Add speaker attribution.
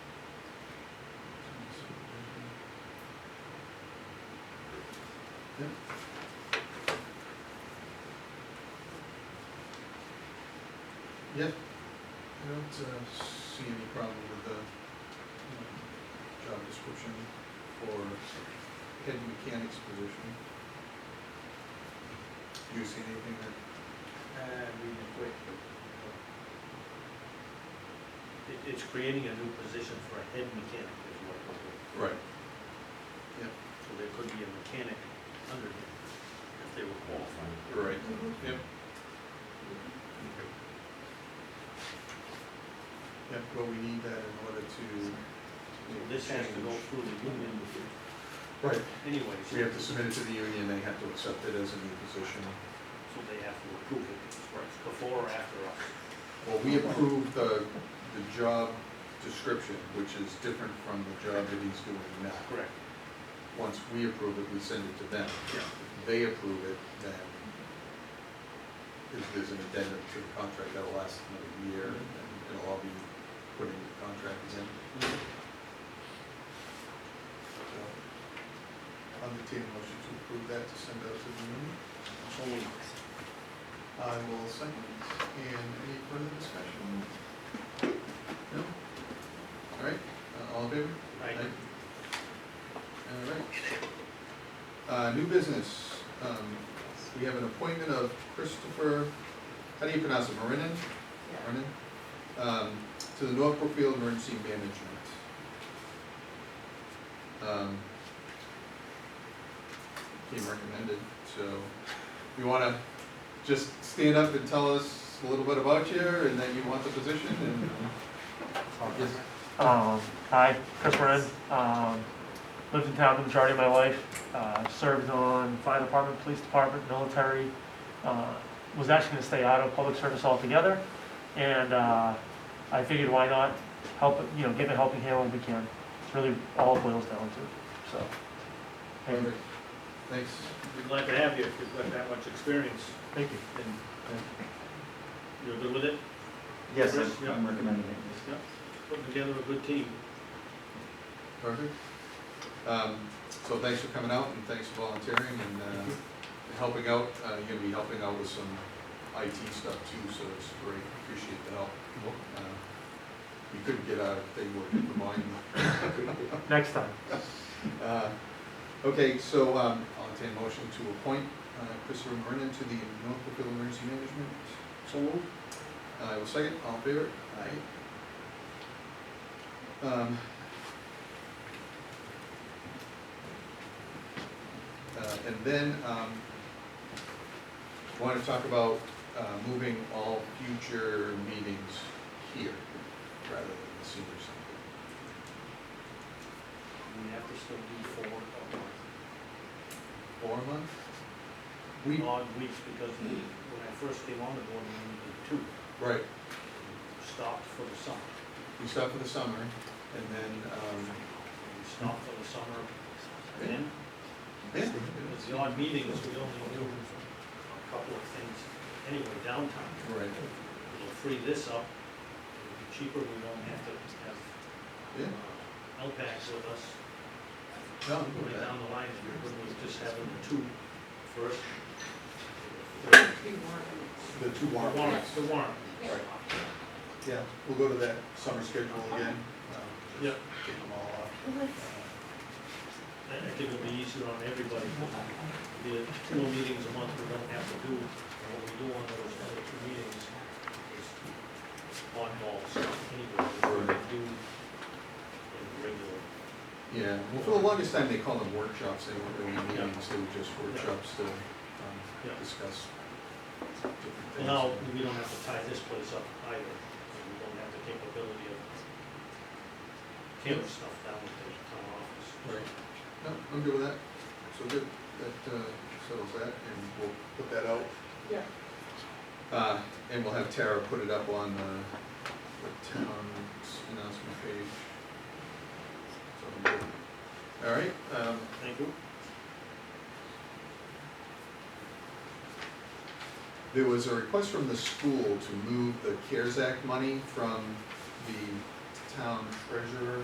Speaker 1: Yep. I don't uh, see any problem with the um, job description for head mechanic's position. Do you see anything that,
Speaker 2: Uh, reading it quick. It- it's creating a new position for a head mechanic is what it would be.
Speaker 1: right,
Speaker 2: So there could be a mechanic under him if they were qualified.
Speaker 1: right, yep. Yep, well, we need that in order to.
Speaker 2: So This has to go through the union
Speaker 1: Right,
Speaker 2: anyway. so-
Speaker 1: we have to submit it to the union, they have to accept it as a new position.
Speaker 2: So they have to approve it before or after us.
Speaker 1: Well, we approved the, the job description, which is different from the job that he's doing now.
Speaker 2: Correct.
Speaker 1: Once we approve it, we send it to them.
Speaker 2: Yeah.
Speaker 1: If They approve it, then if there's an addendum to the contract that'll last another year, and it'll all be put in the contract again. So, I'll entertain a motion to approve that to send out to the union.
Speaker 2: So we,
Speaker 1: I will second it. And any further discussion? No? All right, uh, all in favor?
Speaker 2: I,
Speaker 1: All right. Uh, new business, um, we have an appointment of Christopher, how do you pronounce it, Marinin? Marinin? Um, to the North Brookfield Emergency Management. Um, Came recommended, so you wanna just stand up and tell us a little bit about you and that you want the position and? um, Yes.
Speaker 3: Um, hi, Chris Moran. Um, lived in town the majority of my life. Uh, served on fire department, police department, military. Uh, was actually going to stay out of public service altogether, and uh, I figured why not help, you know, give a helping hand when we can. It's really all it boils down to. So, thank you.
Speaker 1: Perfect. Thanks.
Speaker 2: we're glad to have you if you've got that much experience
Speaker 3: Thank you.
Speaker 2: and you're good with it.
Speaker 4: Yes,
Speaker 2: Chris,
Speaker 4: I'm-
Speaker 2: yeah.
Speaker 4: I'm recommending it.
Speaker 2: Yeah. Putting together a good team.
Speaker 1: Perfect. Um, So thanks for coming out and thanks for volunteering and uh, helping out. Uh, You're gonna be helping out with some IT stuff too, so it's great. Appreciate the help. Uh, You couldn't get out if they were in the volume.
Speaker 3: Next time.
Speaker 1: Uh, Okay, so um, I'll entertain a motion to appoint uh, Christopher Vernon to the North Brookfield Emergency Management. Uh,
Speaker 2: So moved.
Speaker 1: I will second. All in favor? Aye. Um, Uh, and then, um, want to talk about, uh, moving all future meetings here rather than the senior center.
Speaker 2: We have to still do four or
Speaker 1: Or a month? We,
Speaker 2: odd weeks because when I first came on the board, we only did two.
Speaker 1: right,
Speaker 2: Stopped for the summer.
Speaker 1: we stop for the summer and then, um,
Speaker 2: We stopped for the summer. Then,
Speaker 1: yeah,
Speaker 2: with the odd meetings, we only do a couple of things anyway downtown.
Speaker 1: right,
Speaker 2: We'll free this up. It'll be cheaper. We won't have to have
Speaker 1: yeah,
Speaker 2: uh, LPACs with us.
Speaker 1: no, I'm good
Speaker 2: Going
Speaker 1: with that.
Speaker 2: down the line, we're just having the two first.
Speaker 1: the two
Speaker 2: The
Speaker 1: warrant
Speaker 2: warrant,
Speaker 1: articles.
Speaker 2: the warrant.
Speaker 1: Right. Yeah, we'll go to that summer schedule again. um,
Speaker 2: Yep.
Speaker 1: Get them all up. uh,
Speaker 2: I I think it'll be easier on everybody, the two more meetings a month we don't have to do, and what we do on those other two meetings is oddball stuff anyway, we
Speaker 1: Right.
Speaker 2: do in regular.
Speaker 1: Yeah, well, for the longest time, they called them workshops, they weren't really
Speaker 2: Yeah.
Speaker 1: meetings, they were just workshops to um,
Speaker 2: Yeah.
Speaker 1: discuss different things.
Speaker 2: Well, now, we don't have to tie this place up either, and we don't have the capability of camera stuff down at the town office.
Speaker 1: Right, no, I'm good with that, so good, that uh, settles that, and we'll put that out.
Speaker 5: Yeah.
Speaker 1: Uh, And we'll have Tara put it up on uh, the town's announcement page. So, I'm good. all right, um,
Speaker 2: Thank you.
Speaker 1: There was a request from the school to move the CARES Act money from the town treasurer